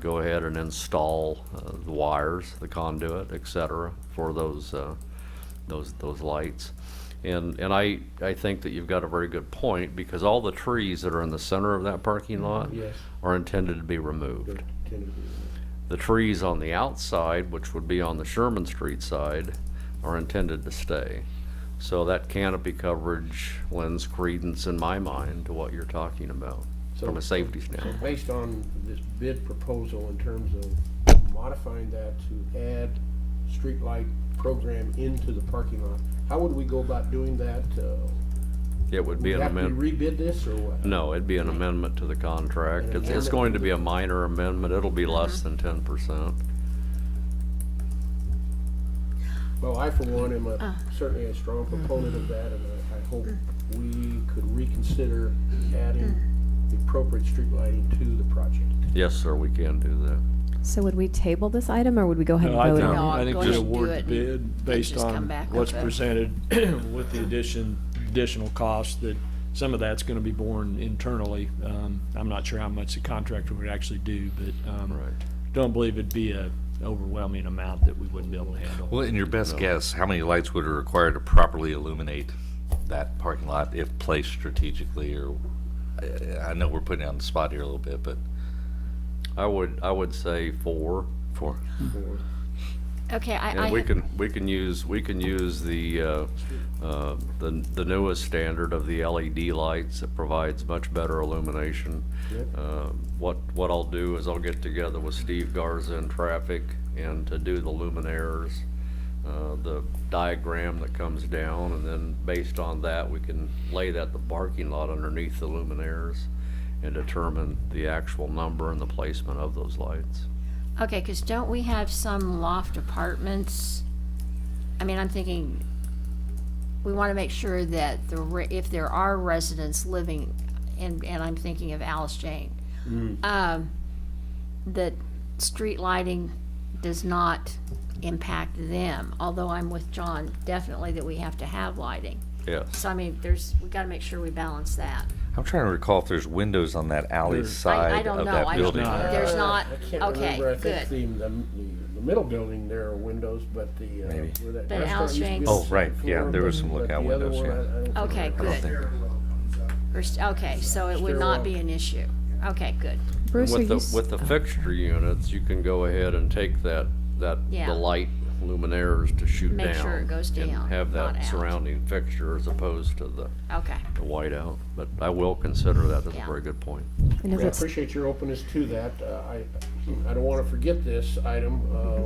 go ahead and install uh, the wires, the conduit, et cetera, for those, uh, those, those lights. And, and I, I think that you've got a very good point, because all the trees that are in the center of that parking lot Yes. are intended to be removed. The trees on the outside, which would be on the Sherman Street side, are intended to stay. So that canopy coverage lends credence in my mind to what you're talking about from a So- safety So standpoint. based on this bid proposal in terms of modifying that to add streetlight program into the parking lot, how would we go about doing that? Uh, It would We be an have to amendment, rebid this or what? no, it'd be an amendment to the An contract. It's, it's amendment going to to be a minor amendment. It'll be less than ten percent. Well, I for one am a, certainly a strong proponent of that, and I, I hope we could reconsider adding the appropriate street lighting to the project. Yes, sir, we can do that. So would we table this item, or would we go ahead and No, I vote think, on it? No, I I'm think going we to award do the it bid based just come on back what's with it. presented with the addition, additional cost that some of that's gonna be borne internally. Um, I'm not sure how much the contractor would actually do, but, um, don't believe it'd be a overwhelming amount that we wouldn't be able to handle. Well, in your best guess, how many lights would are required to properly illuminate that parking lot if placed strategically or, I- I know we're putting you on the spot here a little bit, but I would, I would say four. for, Or- Okay, I, I, And we had- can, we can use, we can use the, uh, uh, the the newest standard of the LED lights that provides much better illumination. Yep. Uh, What, what I'll do is I'll get together with Steve Garza in traffic and to do the luminaires, uh, the diagram that comes down, and then based on that, we can lay that, the parking lot underneath the luminaires and determine the actual number and the placement of those lights. okay, because don't we have some loft apartments? I mean, I'm thinking, we want to make sure that the, re- if there are residents living, and, and I'm thinking of Alice Jane, um, that street lighting does not impact them, although I'm with John, definitely that we have to have lighting. Yes. So I mean, there's, we got to make sure we balance that. I'm trying to recall if there's windows on that alley I, I side don't of know, that I, building. there's not, Uh, I can't remember. I okay, think good. the, the, the middle building there are windows, but the, uh, Maybe. where that But restaurant Al's used to be Shanks- on Oh, the right, second yeah, floor, there were but- some but lookout the other windows, one, yeah. I- I don't think Okay, I- good. Or s- Okay, so it would not be an issue. Okay, good. Bruce, are With you, the, s- with the fixture units, you can go ahead and take that, that, Yeah. the light luminaires to shoot down. Make sure it goes down, And have not that out. surrounding fixture as opposed to the, Okay. the whiteout. But I will consider that, that's a Yeah. very good point. and is I it, appreciate your openness to that. Uh, I, I don't want to forget this item, uh,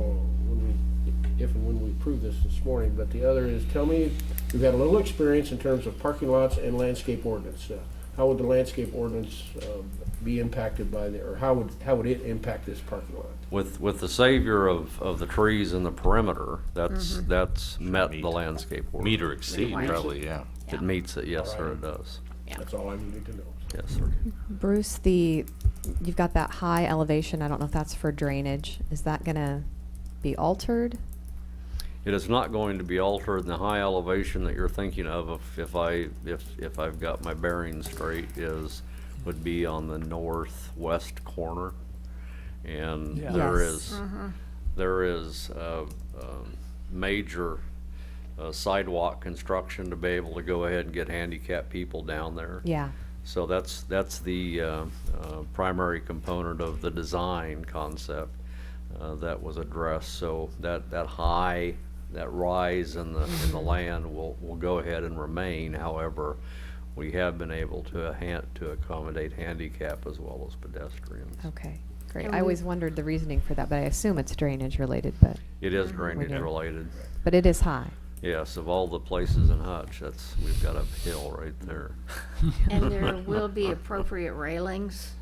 when we, if and when we approve this this morning, but the other is, tell me, we've had a little experience in terms of parking lots and landscape ordinance. Uh, How would the landscape ordinance uh, be impacted by the, or how would, how would it impact this parking lot? With, with the savior of, of the trees in the perimeter, that's, Mm-hmm. that's met meet. the landscape order. Meet or exceed, Right. probably, yeah. It meets it, yes, sir, it does. That's all I needed to know. Yes, sir. Bruce, the, you've got that high elevation, I don't know if that's for drainage. Is that gonna be altered? It is not going to be altered in the high elevation that you're thinking of, if- if I, if, if I've got my bearings straight, is, would be on the northwest corner. And Yeah. there Yes. is, there is, uh, um, major uh, sidewalk construction to be able to go ahead and get handicapped people down there. Yeah, So that's, that's the uh, uh, primary component of the design concept uh, that was addressed. So that, that high, that rise in the, in the land will, will go ahead and remain. However, we have been able to han, to accommodate handicap as well as pedestrians. okay, great. And I we- always wondered the reasoning for that, but I assume it's drainage related, but, It is drainage Okay. related. but it is high. Yes, of all the places in Hutch, that's, we've got a hill right there. And there will be appropriate railings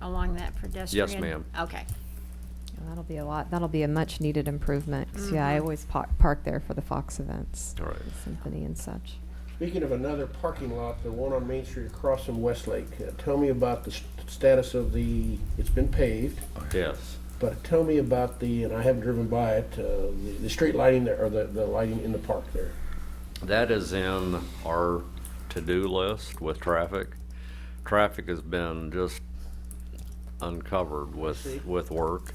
along that pedestrian? ma'am. Okay, And That'll be a lot, that'll be a much needed improvement, 'cause, yeah, I always pa- park there for the Fox events, All right. the symphony and such. Speaking of another parking lot, the one on Main Street across from Westlake, uh, tell me about the st- status of the, it's been paved, Yes. but tell me about the, and I haven't driven by it, uh, the, the street lighting there, or the, the lighting in the park there. That is in our to-do list with traffic. Traffic has been just uncovered with, with work.